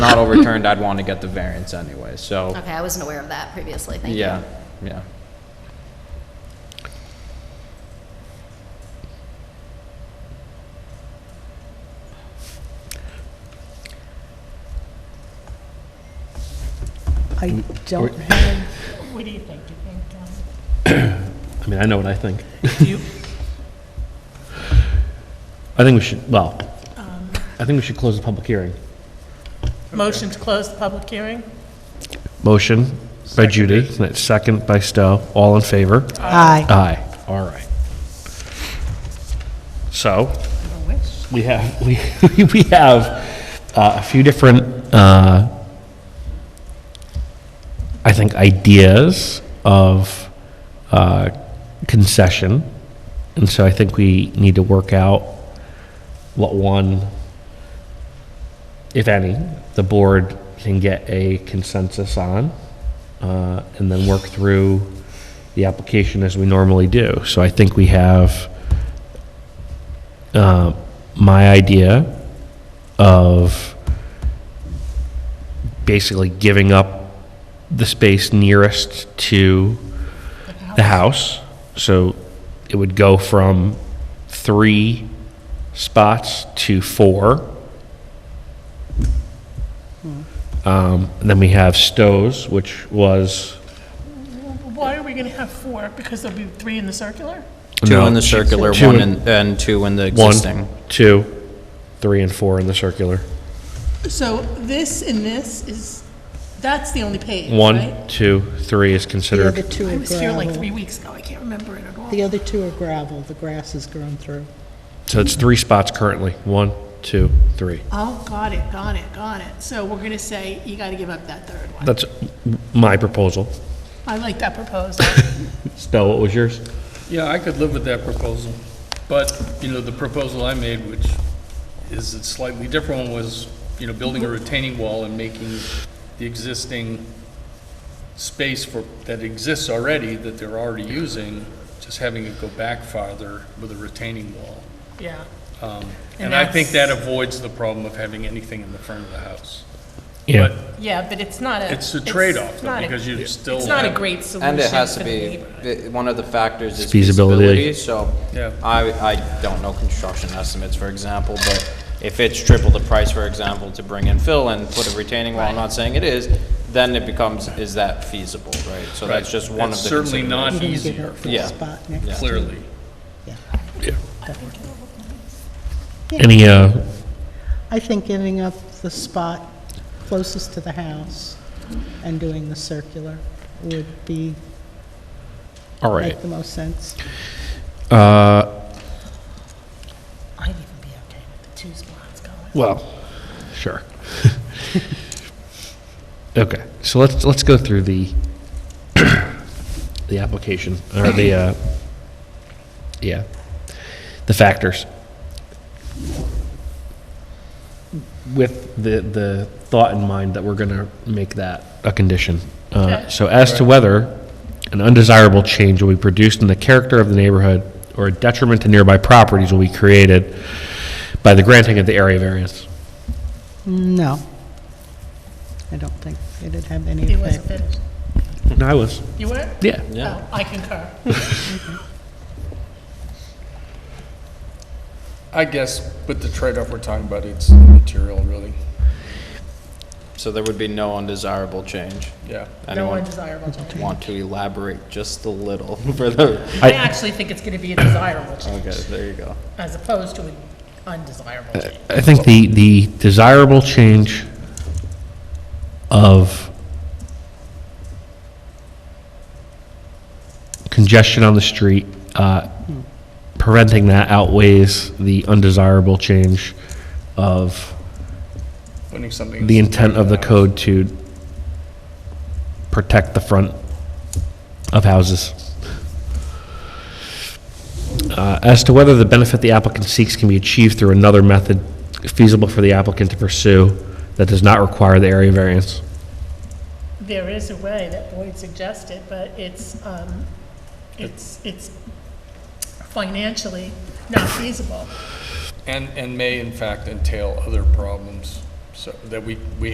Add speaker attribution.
Speaker 1: not overturned, I'd want to get the variance anyway, so,
Speaker 2: Okay, I wasn't aware of that previously, Oh, thank you.
Speaker 1: yeah, yeah.
Speaker 3: I don't have,
Speaker 4: What do you think? You think, um,
Speaker 5: I mean, I know what I think. I think we should, well, I think we should close the public hearing.
Speaker 4: motion to close the public hearing?
Speaker 5: Motion by Judy, second by Stowe, all in favor?
Speaker 3: aye.
Speaker 5: Aye. All right. So, we have, we, we have uh, a few different, uh, I think, ideas of uh, concession. And so I think we need to work out what one, if any, the board can get a consensus on, uh, and then work through the application as we normally do. So I think we have uh, my idea of basically giving up the space nearest to the house. So it would go from three spots to four. Um, and Then we have Stowe's, which was.
Speaker 4: Why are we going to have four? Because there'll be three in the circular?
Speaker 1: Two
Speaker 5: No,
Speaker 1: in the circular,
Speaker 5: two
Speaker 1: one
Speaker 5: in-
Speaker 1: in, and two in the
Speaker 5: One,
Speaker 1: existing.
Speaker 5: two, three, and four in the circular.
Speaker 4: So this and this is, that's the only page, right?
Speaker 5: One, two, three is
Speaker 3: The other
Speaker 5: considered.
Speaker 3: two
Speaker 4: I
Speaker 3: are
Speaker 4: was here like
Speaker 3: gravel.
Speaker 4: three weeks ago, I can't remember it at all.
Speaker 3: The other two are gravel, the grass has grown through.
Speaker 5: So it's three spots currently. One, two, three.
Speaker 4: Oh, got it, got it, got it. So we're going to say, you got to give up that third one.
Speaker 5: That's my proposal.
Speaker 4: I like that proposal.
Speaker 5: Stowe, what was yours?
Speaker 6: Yeah, I could live with that proposal, but, you know, the proposal I made, which is a slightly different one, was, you know, building a
Speaker 1: Mm-hmm.
Speaker 6: retaining wall and making the existing space for, that exists already, that they're already using, just having it go back farther with a retaining wall.
Speaker 4: Yeah.
Speaker 6: Um,
Speaker 4: And
Speaker 6: And I think that
Speaker 4: that's-
Speaker 6: avoids the problem of having anything in the front of the house.
Speaker 5: Yeah.
Speaker 4: Yeah, but it's not a.
Speaker 6: It's a trade-off, though,
Speaker 4: not a-
Speaker 6: because you still
Speaker 4: It's not a
Speaker 6: have-
Speaker 4: great solution
Speaker 1: And it has
Speaker 4: for
Speaker 1: to
Speaker 4: the
Speaker 1: be,
Speaker 4: neighborhood.
Speaker 1: the- one of the factors is
Speaker 5: Feasibility.
Speaker 1: feasibility, so.
Speaker 6: Yeah.
Speaker 1: I, I don't know construction estimates, for example, but if it's triple the price, for example, to bring in fill and put a retaining wall, I'm not saying it is, then it becomes, is that feasible, right? So that's
Speaker 6: Right.
Speaker 1: just one of
Speaker 6: It's
Speaker 1: the
Speaker 6: Certainly
Speaker 1: considerations.
Speaker 6: not
Speaker 3: You're gonna give
Speaker 6: easier,
Speaker 3: up the
Speaker 1: Yeah.
Speaker 3: spot
Speaker 1: Yeah.
Speaker 3: next to it.
Speaker 6: clearly.
Speaker 5: Any, uh,
Speaker 3: I think ending up the spot closest to the house and doing the circular would be,
Speaker 5: all right.
Speaker 3: make the most sense.
Speaker 5: Uh,
Speaker 4: I'd even be okay with the two spots going.
Speaker 5: well, sure. Okay, so let's, let's go through the, the application, or the, uh, yeah, the factors. with the, the thought in mind that we're going to make that a condition. Uh, So as to whether an undesirable change will be produced in the character of the neighborhood or a detriment to nearby properties will be created by the granting of the area variance.
Speaker 3: No. I don't think it'd have any
Speaker 4: It wasn't
Speaker 3: effect.
Speaker 4: finished.
Speaker 5: No, I was,
Speaker 4: You were?
Speaker 5: yeah.
Speaker 1: Yeah.
Speaker 4: Oh, I concur.
Speaker 6: I guess, but the trade-off we're talking about, it's immaterial, really,
Speaker 1: So there would be no undesirable change.
Speaker 6: yeah.
Speaker 4: No
Speaker 1: Anyone
Speaker 4: undesirable change.
Speaker 1: want to elaborate just a little for the,
Speaker 4: I actually think it's going to be a desirable change,
Speaker 1: okay, there you go.
Speaker 4: as opposed to an undesirable change.
Speaker 5: I think the, the desirable change of congestion on the street, uh, preventing that outweighs the undesirable change of
Speaker 6: Putting something.
Speaker 5: the intent of the code to protect the front of houses. Uh, As to whether the benefit the applicant seeks can be achieved through another method feasible for the applicant to pursue that does not require the area variance.
Speaker 4: There is a way that Boyd suggested, but it's, um, it's, it's financially not feasible.
Speaker 6: And, and may in fact entail other problems, so, that we, we